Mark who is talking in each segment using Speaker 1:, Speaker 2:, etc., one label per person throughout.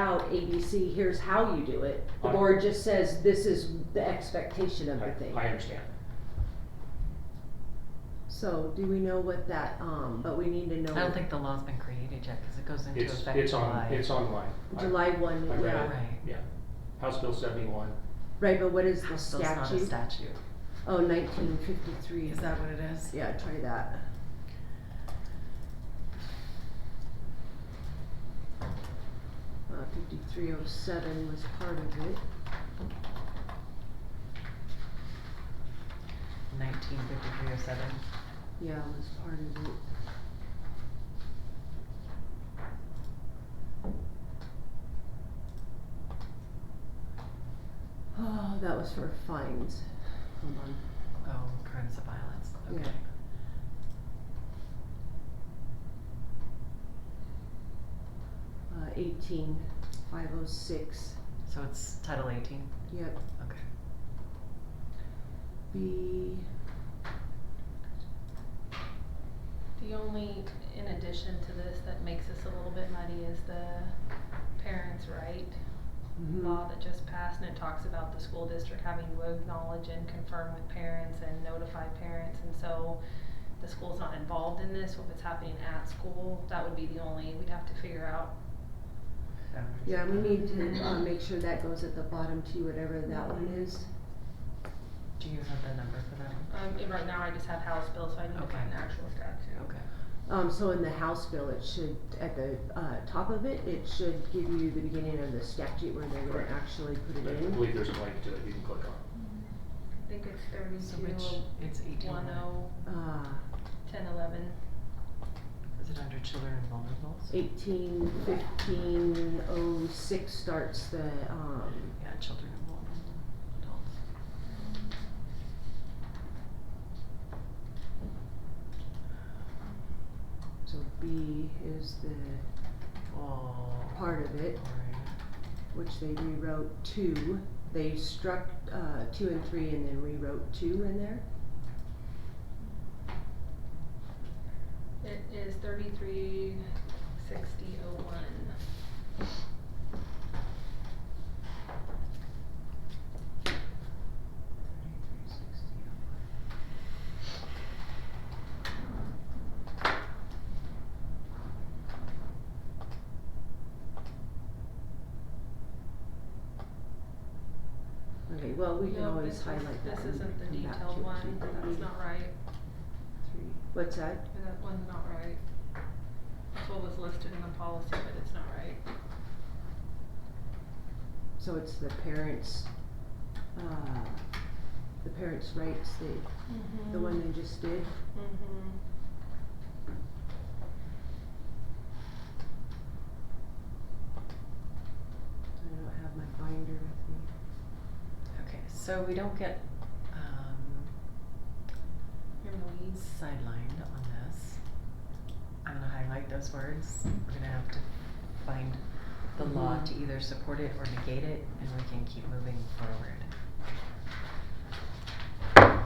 Speaker 1: out A, B, C, here's how you do it. The
Speaker 2: I-
Speaker 1: board just says, this is the expectation of the thing.
Speaker 2: I, I understand.
Speaker 1: So do we know what that, um, but we need to know.
Speaker 3: I don't think the law's been created yet, cause it goes into
Speaker 2: It's,
Speaker 3: effect
Speaker 2: it's
Speaker 3: July.
Speaker 2: on, it's online. I-
Speaker 1: July one,
Speaker 2: I read
Speaker 1: yeah,
Speaker 2: it.
Speaker 3: Right,
Speaker 2: Yeah, House Bill seventy-one,
Speaker 1: right, but what is the
Speaker 3: so it's not a
Speaker 1: statute?
Speaker 3: statute.
Speaker 1: Oh, nineteen fifty-three.
Speaker 3: Is that what it is?
Speaker 1: Yeah, try that. Uh, fifty-three oh seven was part of it.
Speaker 3: Nineteen fifty-three oh seven.
Speaker 1: Yeah, it was part of it. Oh, that was for fines. Hold on.
Speaker 3: Oh, crimes of violence,
Speaker 1: Yeah.
Speaker 3: okay.
Speaker 1: Uh, eighteen, five oh six,
Speaker 3: So it's Title eighteen,
Speaker 1: yep,
Speaker 3: okay.
Speaker 1: B,
Speaker 4: The only, in addition to this, that makes this a little bit muddy is the parents' right
Speaker 3: Mm-hmm.
Speaker 1: mhm.
Speaker 4: law that just passed, and it talks about the school district having to acknowledge and confirm with parents and notify parents, and so the school's not involved in this, if it's happening at school, that would be the only, we'd have to figure out.
Speaker 3: Boundaries.
Speaker 1: Yeah, we need to, uh, make sure that goes at the bottom too, whatever that one is.
Speaker 3: Do you have the number for that one?
Speaker 4: Um, and right now I just have House bill, so I need to
Speaker 3: Okay.
Speaker 4: find the actual statute.
Speaker 3: Okay.
Speaker 1: Um, so in the House bill, it should, at the, uh, top of it, it should give you the beginning of the statute where they're gonna
Speaker 2: Correct.
Speaker 1: actually put
Speaker 2: I
Speaker 1: it in.
Speaker 2: believe there's a link to, you can click on.
Speaker 4: I think it's
Speaker 3: So which, it's eighteen,
Speaker 4: one oh,
Speaker 1: Uh,
Speaker 4: ten eleven.
Speaker 3: is it under children and vulnerables?
Speaker 1: eighteen fifteen oh six starts the, um,
Speaker 3: Yeah, children and vulnerable adults.
Speaker 1: so B is the
Speaker 3: Oh.
Speaker 1: part of it,
Speaker 3: Alright,
Speaker 1: which they rewrote two. They struck, uh, two and three and then rewrote two in there.
Speaker 4: It is thirty-three sixty oh one.
Speaker 3: thirty-three sixty oh one.
Speaker 1: Okay, well, we can
Speaker 4: No,
Speaker 1: always
Speaker 4: this
Speaker 1: highlight
Speaker 4: is-
Speaker 1: that
Speaker 4: This
Speaker 1: and
Speaker 4: isn't the
Speaker 1: come back to
Speaker 4: detailed
Speaker 1: it
Speaker 4: one,
Speaker 1: too.
Speaker 4: that's not right,
Speaker 1: Three. What's that?
Speaker 4: that one's not right. That's what was listed in the policy, but it's not right.
Speaker 1: So it's the parents, uh, the parents' rights, the, the
Speaker 4: Mm.
Speaker 1: one they just did?
Speaker 4: Mm-hmm.
Speaker 1: I don't have my binder with me.
Speaker 3: Okay, so we don't get, um,
Speaker 4: You're in the weeds.
Speaker 3: sidelined on this. I'm gonna highlight those words. We're gonna have to find the law
Speaker 1: Mhm.
Speaker 3: to either support it or negate it, and we can keep moving forward.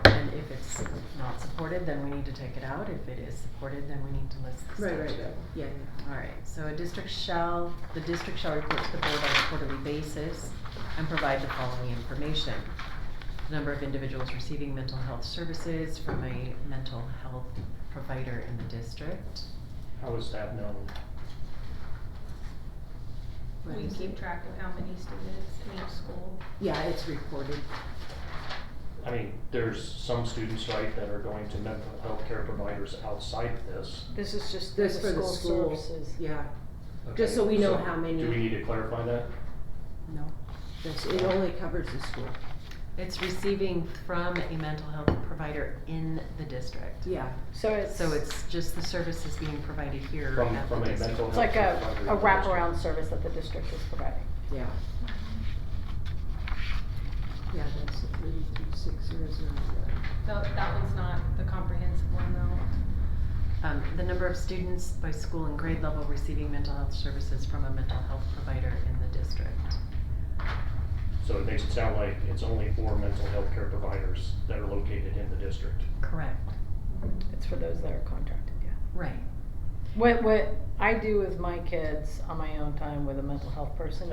Speaker 3: And if it's not supported, then we need to take it out. If it is supported, then we need to list the
Speaker 1: Right,
Speaker 3: statute.
Speaker 1: right, right, yeah, yeah.
Speaker 3: Alright, so a district shall, the district shall report to the board on a quarterly basis and provide the following information. The Number of individuals receiving mental health services from a mental health provider in the district.
Speaker 2: How is that known?
Speaker 1: What
Speaker 4: We
Speaker 1: is
Speaker 4: keep
Speaker 1: it?
Speaker 4: track of how many students in each school.
Speaker 1: Yeah, it's reported.
Speaker 2: I mean, there's some students, right, that are going to mental health care providers outside of this.
Speaker 5: This is just the
Speaker 1: This for the
Speaker 5: school
Speaker 1: school.
Speaker 5: services.
Speaker 1: Yeah,
Speaker 2: Okay,
Speaker 1: Just so we know how many.
Speaker 2: Do we need to clarify that?
Speaker 1: no, that's, it only covers the school,
Speaker 3: It's receiving from a mental health provider in the district.
Speaker 1: yeah.
Speaker 5: So it's,
Speaker 3: So it's just the services being provided here
Speaker 2: From-
Speaker 3: at the
Speaker 2: from a
Speaker 3: district.
Speaker 2: mental
Speaker 5: it's like a, a
Speaker 2: Provider.
Speaker 5: wraparound service that the district is providing.
Speaker 1: Yeah. Yeah, that's the thirty-two six zero zero zero.
Speaker 4: No, that one's not the comprehensive one though.
Speaker 3: Um, the number of students by school and grade level receiving mental health services from a mental health provider in the district.
Speaker 2: So it makes it sound like it's only for mental health care providers that are located in the district.
Speaker 3: Correct,
Speaker 5: It's for those that are contracted, yeah.
Speaker 3: right.
Speaker 5: What, what I do with my kids on my own time with a mental health person